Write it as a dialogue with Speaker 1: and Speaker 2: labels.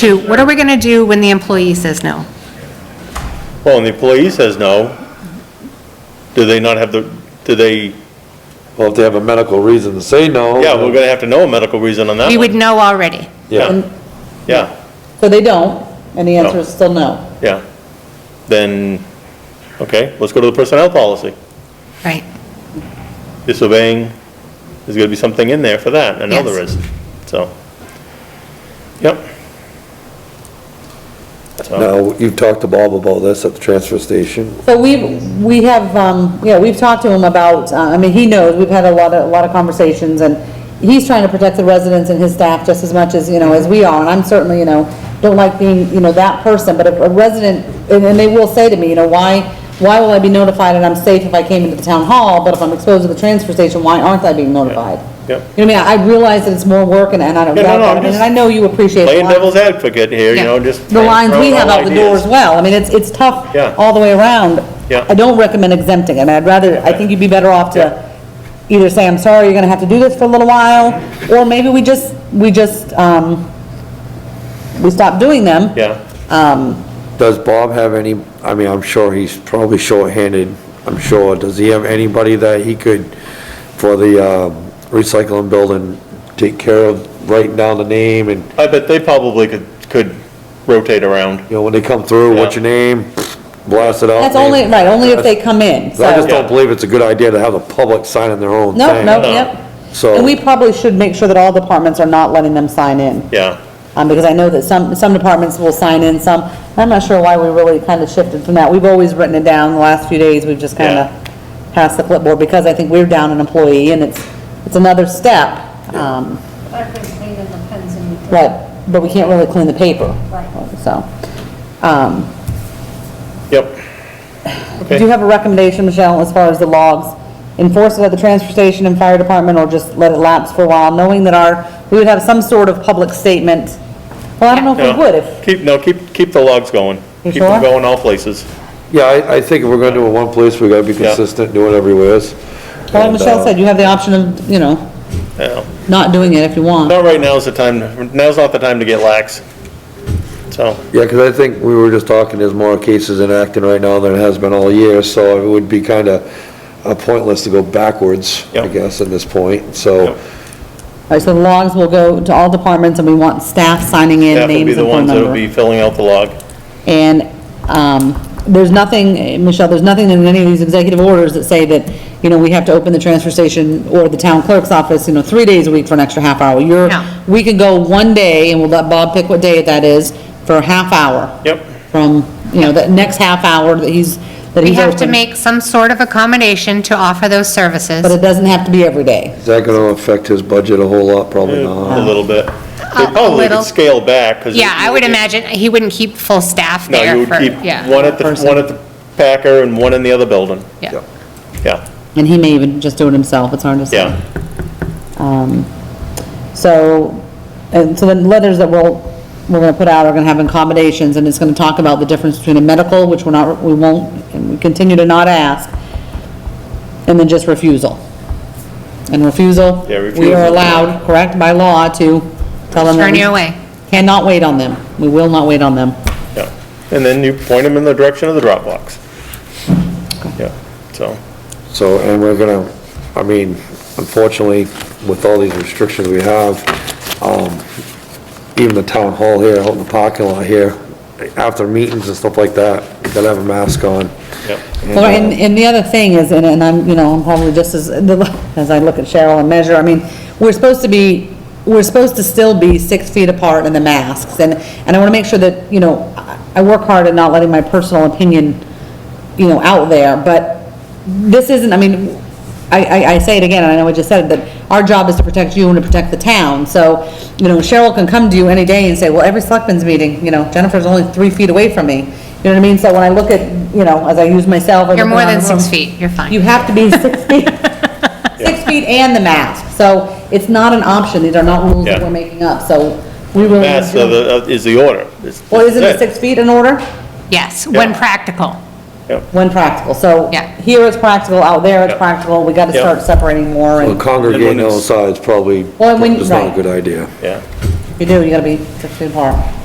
Speaker 1: to, what are we going to do when the employee says no?
Speaker 2: Well, and the employee says no, do they not have the, do they,
Speaker 3: Well, if they have a medical reason to say no.
Speaker 2: yeah, we're gonna have to know a medical reason on that
Speaker 1: We would
Speaker 2: one.
Speaker 1: know already.
Speaker 3: Yeah,
Speaker 2: Yeah,
Speaker 4: So they don't, and the answer is still no.
Speaker 2: yeah. Then, okay, let's go to the personnel policy.
Speaker 1: Right.
Speaker 2: Disobeying, there's gonna be something in there for that, I know there
Speaker 1: Yes.
Speaker 2: is, so. Yep. So-
Speaker 3: now, you've talked to Bob about this at the transfer station.
Speaker 4: So we, we have, um, yeah, we've talked to him about, uh, I mean, he knows, we've had a lot of, a lot of conversations, and he's trying to protect the residents and his staff just as much as, you know, as we are, and I'm certainly, you know, don't like being, you know, that person, but if a resident, and, and they will say to me, you know, why, why will I be notified and I'm safe if I came into the town hall, but if I'm exposed to the transfer station, why aren't I being notified?
Speaker 2: Yep.
Speaker 4: You know, what I mean, I I realize that it's more work, and, and I don't
Speaker 2: Yeah, no,
Speaker 4: doubt
Speaker 2: no, I'm
Speaker 4: that, I mean,
Speaker 2: just
Speaker 4: and I know you appreciate a
Speaker 2: Playing
Speaker 4: lot of-
Speaker 2: devil's advocate here, you
Speaker 1: Yeah.
Speaker 2: know, just.
Speaker 4: the lines we have out the door
Speaker 2: doors.
Speaker 4: as well. I mean, it's, it's tough
Speaker 2: Yeah.
Speaker 4: all the way around.
Speaker 2: Yeah.
Speaker 4: I don't recommend exempting, and I'd rather, I think you'd be better off
Speaker 2: Yeah.
Speaker 4: to either say, I'm sorry, you're gonna have to do this for a little while, or maybe we just, we just, um, we stop doing them.
Speaker 2: Yeah.
Speaker 3: Does Bob have any, I mean, I'm sure he's probably shorthanded, I'm sure. Does he have anybody that he could, for the um, recycling building, take care of, writing down the name and,
Speaker 2: I bet they probably could, could rotate around.
Speaker 3: you know, when they come through, what's
Speaker 2: Yeah.
Speaker 3: your name? Blast it out.
Speaker 4: That's only,
Speaker 3: name.
Speaker 4: right, only if they come in, so.
Speaker 3: I just
Speaker 2: Yeah.
Speaker 3: don't believe it's a good idea to have the public signing their own
Speaker 4: No,
Speaker 3: thing.
Speaker 4: no,
Speaker 2: No.
Speaker 4: yep.
Speaker 3: So-
Speaker 4: And we probably should make sure that all departments are not letting them sign in.
Speaker 2: Yeah,
Speaker 4: Um, because I know that some, some departments will sign in, some, I'm not sure why we really kind of shifted from that. We've always written it down, the last few days, we've just kind
Speaker 2: Yeah.
Speaker 4: of passed the clipboard, because I think we're down an employee, and it's, it's another step. Um,
Speaker 5: I've been cleaning the pens and you.
Speaker 4: but, but we can't really clean the paper.
Speaker 5: Right.
Speaker 4: So, um,
Speaker 2: yep.
Speaker 4: do you
Speaker 2: Okay.
Speaker 4: have a recommendation, Michelle, as far as the logs? Enforce it at the transfer station and fire department, or just let it lapse for a while, knowing that our, we would have some sort of public statement? Well, I don't know if
Speaker 2: No,
Speaker 4: we would, if,
Speaker 2: Keep, no, keep, keep the logs going.
Speaker 4: You
Speaker 2: Keep them
Speaker 4: sure?
Speaker 2: going all places.
Speaker 3: Yeah, I, I think if we're gonna do it one place, we gotta be
Speaker 2: Yeah.
Speaker 3: consistent, do it everywhere.
Speaker 4: well, like
Speaker 2: uh,
Speaker 4: Michelle said, you have the option of, you know,
Speaker 2: Yeah.
Speaker 4: not doing it if you want.
Speaker 2: Not right now's the time, now's not the time to get lax. So,
Speaker 3: Yeah, because I think we were just talking, there's more cases in Acton right now than has been all year, so it would be kind of uh, pointless to go backwards, I
Speaker 2: Yep.
Speaker 3: guess, at this point, so.
Speaker 2: Yep.
Speaker 4: All right, so the logs will go to all departments, and we want staff signing in,
Speaker 2: staff will be
Speaker 4: names
Speaker 2: the
Speaker 4: and phone
Speaker 2: ones that'll be
Speaker 4: number.
Speaker 2: filling out the log.
Speaker 4: And, um, there's nothing, eh, Michelle, there's nothing in any of these executive orders that say that, you know, we have to open the transfer station or the town clerk's office, you know, three days a week for an extra half hour. You're,
Speaker 1: No.
Speaker 4: we can go one day, and we'll let Bob pick what day that is, for a half hour.
Speaker 2: Yep.
Speaker 4: From, you know, that next half hour that he's, that
Speaker 1: We
Speaker 4: he's
Speaker 1: have to
Speaker 4: open.
Speaker 1: make some sort of accommodation to offer those
Speaker 4: But
Speaker 1: services.
Speaker 4: it doesn't have to be every day.
Speaker 3: Is that gonna affect his budget a whole lot? Probably
Speaker 2: A
Speaker 3: not.
Speaker 2: little bit. They
Speaker 1: a
Speaker 2: probably
Speaker 1: little.
Speaker 2: could scale back, because.
Speaker 1: Yeah, I would imagine he wouldn't keep full staff
Speaker 2: No, you
Speaker 1: there
Speaker 2: would
Speaker 1: for,
Speaker 2: keep
Speaker 1: yeah,
Speaker 2: one at the, one at the Packer and one in the other building.
Speaker 1: yeah.
Speaker 2: Yeah,
Speaker 4: And he may even just do it himself, it's hard to say.
Speaker 2: yeah.
Speaker 4: Um, So, and so the letters that we'll, we're gonna put out are gonna have accommodations, and it's gonna talk about the difference between a medical, which we're not, we won't, and we continue to not ask, and then just refusal. And refusal,
Speaker 2: Yeah,
Speaker 4: we are
Speaker 2: refusal.
Speaker 4: allowed, correct, by law to tell them. that
Speaker 1: Turn
Speaker 4: we
Speaker 1: you away.
Speaker 4: Cannot wait on them. We will not wait on them.
Speaker 2: Yeah, and then you point them in the direction of the drop box. Yeah, so,
Speaker 3: So, and we're gonna, I mean, unfortunately, with all these restrictions we have, um, even the town hall here, out in the parking lot here, after meetings and stuff like that, you gotta have a mask on. uh,
Speaker 2: yep,
Speaker 4: Well, and, and the other thing is, and, and I'm, you know, I'm probably just as, as I look at Cheryl and measure, I mean, we're supposed to be, we're supposed to still be six feet apart in the masks, and, and I wanna make sure that, you know, I I work hard at not letting my personal opinion, you know, out there, but this isn't, I mean, I, I, I say it again, and I know I just said it, that our job is to protect you and to protect the town, so, you know, Cheryl can come to you any day and say, well, every selectmen's meeting, you know, Jennifer's only three feet away from me, you know what I mean? So when I look at, you know, as I use myself. I
Speaker 1: You're
Speaker 4: look
Speaker 1: more
Speaker 4: around
Speaker 1: than
Speaker 4: the
Speaker 1: six
Speaker 4: room,
Speaker 1: feet, you're
Speaker 4: You
Speaker 1: fine.
Speaker 4: have to be six feet, six feet and the mask, so it's not an option, these are not rules that
Speaker 2: Yeah.
Speaker 4: we're making up, so we really.
Speaker 2: that's the, the- is the order. It's-
Speaker 4: Well, isn't it
Speaker 2: that's
Speaker 4: six feet in order?
Speaker 1: Yes, when
Speaker 2: Yeah.
Speaker 1: practical.
Speaker 2: Yep,
Speaker 4: When practical, so.
Speaker 1: Yeah.
Speaker 4: Here it's practical, out there it's
Speaker 2: Yeah.
Speaker 4: practical, we gotta
Speaker 2: Yeah.
Speaker 4: start separating more and.
Speaker 3: Well, congregating outside is probably,
Speaker 4: Well, when-
Speaker 3: is not a
Speaker 4: right.
Speaker 3: good idea.
Speaker 2: yeah,
Speaker 4: If you do, you gotta be six feet apart.